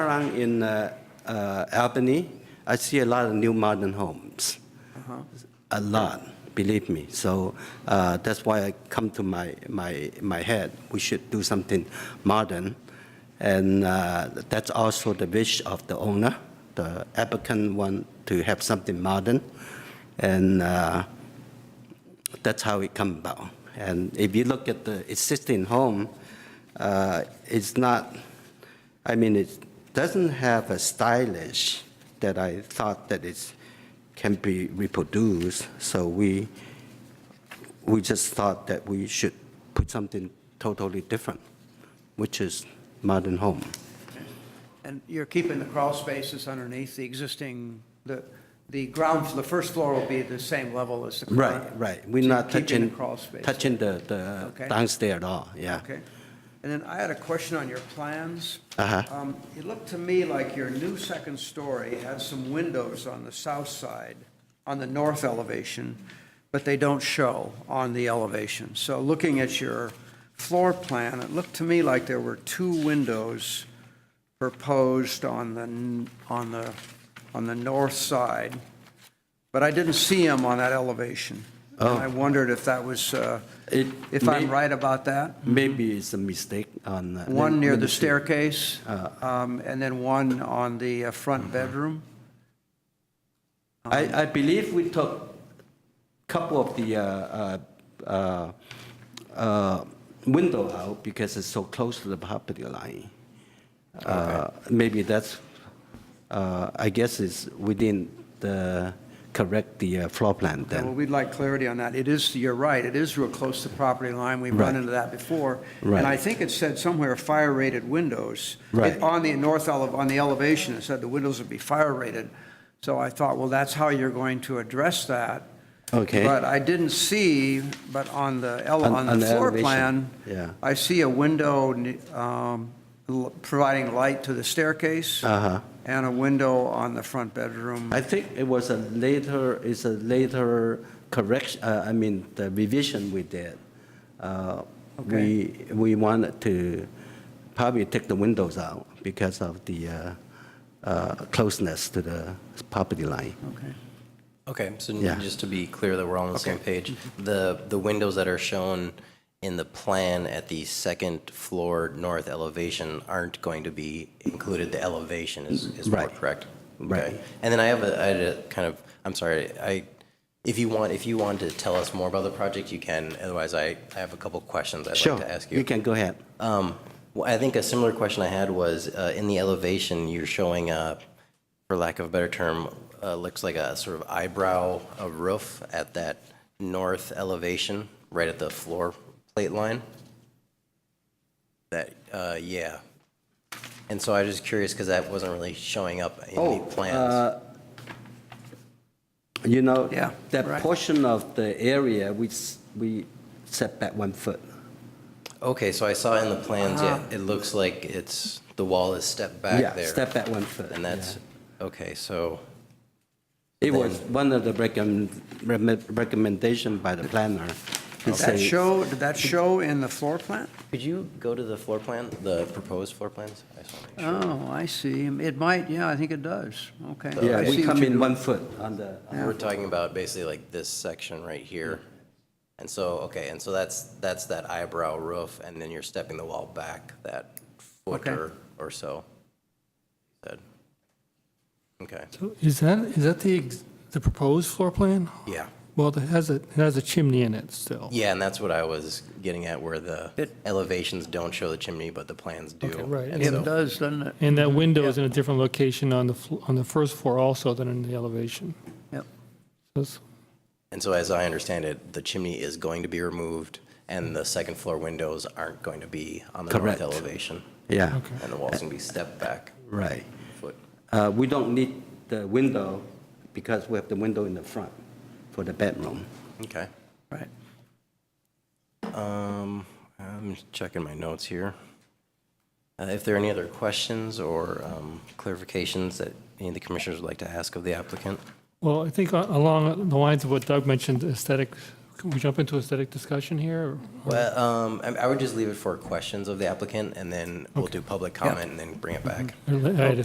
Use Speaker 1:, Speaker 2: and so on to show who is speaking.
Speaker 1: around in uh, uh, Albany, I see a lot of new modern homes. A lot, believe me. So uh, that's why I come to my, my, my head. We should do something modern. And uh, that's also the wish of the owner. The applicant want to have something modern. And uh, that's how it come about. And if you look at the existing home, uh, it's not, I mean, it doesn't have a stylish that I thought that it can be reproduced. So we, we just thought that we should put something totally different, which is modern home.
Speaker 2: And you're keeping the crawl spaces underneath the existing, the, the ground, the first floor will be the same level as the current?
Speaker 1: Right, right. We're
Speaker 2: So
Speaker 1: not
Speaker 2: you're keeping the
Speaker 1: touching,
Speaker 2: crawl space.
Speaker 1: touching the, the
Speaker 2: Okay.
Speaker 1: downstairs at all, yeah.
Speaker 2: Okay. And then I had a question on your plans.
Speaker 1: Uh-huh.
Speaker 2: Um, It looked to me like your new second story had some windows on the south side, on the north elevation, but they don't show on the elevation. So looking at your floor plan, it looked to me like there were two windows proposed on the, n- on the, on the north side, but I didn't see them on that elevation. And I wondered if that was, uh,
Speaker 1: Oh. It
Speaker 2: if I'm
Speaker 1: may-
Speaker 2: right about that?
Speaker 1: Maybe it's a mistake on. uh, let-
Speaker 2: One near
Speaker 1: let me
Speaker 2: the
Speaker 1: see.
Speaker 2: staircase, um, and then one on the uh, front bedroom.
Speaker 1: I, I believe we took couple of the uh, uh, uh, uh, window out because it's so close to the property line. Uh, Maybe that's, uh, I guess it's within the, correct the uh, floor plan
Speaker 2: Well,
Speaker 1: then.
Speaker 2: we'd like clarity on that. It is, you're right, it is real close to property line. We've
Speaker 1: Right.
Speaker 2: run into that before.
Speaker 1: Right.
Speaker 2: And I think it said somewhere fire-rated windows. It-
Speaker 1: Right.
Speaker 2: On the north ele, on the elevation, it said the windows would be fire-rated. So I thought, well, that's how you're going to address that.
Speaker 1: Okay.
Speaker 2: But I didn't see, but on the, ele-
Speaker 1: On-
Speaker 2: on
Speaker 1: on
Speaker 2: the
Speaker 1: the
Speaker 2: floor
Speaker 1: elevation,
Speaker 2: plan,
Speaker 1: yeah.
Speaker 2: I see a window um, l- providing light to the staircase.
Speaker 1: Uh-huh.
Speaker 2: And a window on the front bedroom.
Speaker 1: I think it was a later, it's a later correction, uh, I mean, the revision we did. Uh, We, we wanted to probably take the windows out because of the uh, uh, closeness to the property line.
Speaker 2: Okay.
Speaker 3: Okay, so
Speaker 1: Yeah.
Speaker 3: just to be clear that we're all on the same page, the, the windows that are shown in the plan at the second floor north elevation aren't going to be included, the elevation is, is more
Speaker 1: Right.
Speaker 3: correct?
Speaker 1: Right.
Speaker 3: Okay. And then I have a, I had a kind of, I'm sorry, I, if you want, if you want to tell us more about the project, you can, otherwise I, I have a couple questions I'd
Speaker 1: Sure,
Speaker 3: like to ask
Speaker 1: you can go ahead.
Speaker 3: um, well, I think a similar question I had was uh, in the elevation, you're showing, uh, for lack of a better term, uh, looks like a sort of eyebrow a roof at that north elevation, right at the floor plate line. That, uh, yeah. And so I was just curious because that wasn't really showing up in
Speaker 1: Oh,
Speaker 3: the plans.
Speaker 1: You know,
Speaker 2: Yeah,
Speaker 1: that
Speaker 2: right.
Speaker 1: portion of the area, we, s- we set back one foot.
Speaker 3: Okay, so I saw in the plans, yeah, it looks like it's, the wall is stepped back
Speaker 1: uh-huh. Yeah,
Speaker 3: there.
Speaker 1: step back one foot.
Speaker 3: And that's, okay, so.
Speaker 1: It was one of the recommend, recommendation by the planner. to
Speaker 2: Did
Speaker 1: say-
Speaker 2: that show, did that show in the floor plan?
Speaker 3: Could you go to the floor plan, the proposed floor plans? I just wanna make sure.
Speaker 2: Oh, I see. It might, yeah, I think it does. Okay.
Speaker 1: Yeah,
Speaker 2: I
Speaker 1: we
Speaker 2: see what
Speaker 1: come
Speaker 2: you
Speaker 1: in
Speaker 2: do. uh,
Speaker 1: one foot on the,
Speaker 3: We're talking about basically like this section right here. And so, okay, and so that's, that's that eyebrow roof, and then you're stepping the wall back that foot
Speaker 2: Okay.
Speaker 3: or, or so. Good. Okay,
Speaker 4: So Is that, is that the, ex- the proposed floor plan?
Speaker 3: yeah.
Speaker 4: Well, it has a, it has a chimney in it still.
Speaker 3: Yeah, and that's what I was getting at, where the
Speaker 2: It-
Speaker 3: elevations don't show the chimney, but the plans do.
Speaker 4: Okay, right.
Speaker 3: And
Speaker 2: It
Speaker 3: so,
Speaker 2: does, doesn't it?
Speaker 4: And that window is in a different location on the, fl- on the first floor also than in the elevation.
Speaker 2: Yep.
Speaker 4: That's-
Speaker 3: and so as I understand it, the chimney is going to be removed, and the second floor windows aren't going to be on the
Speaker 1: Correct.
Speaker 3: north elevation.
Speaker 1: yeah,
Speaker 3: And the walls can be stepped back
Speaker 1: right.
Speaker 3: a foot.
Speaker 1: Uh, We don't need the window because we have the window in the front for the bedroom.
Speaker 3: Okay.
Speaker 2: Right.
Speaker 3: Um, I'm just checking my notes here. Uh, if there are any other questions or um, clarifications that any of the commissioners would like to ask of the applicant?
Speaker 4: uh, Well, I think a- along the lines of what Doug mentioned, aesthetic Can we jump into aesthetic discussion here? or-
Speaker 3: Well, um, I I would just leave it for questions of the applicant, and then we'll do public comment and then bring it back.
Speaker 4: or- I had a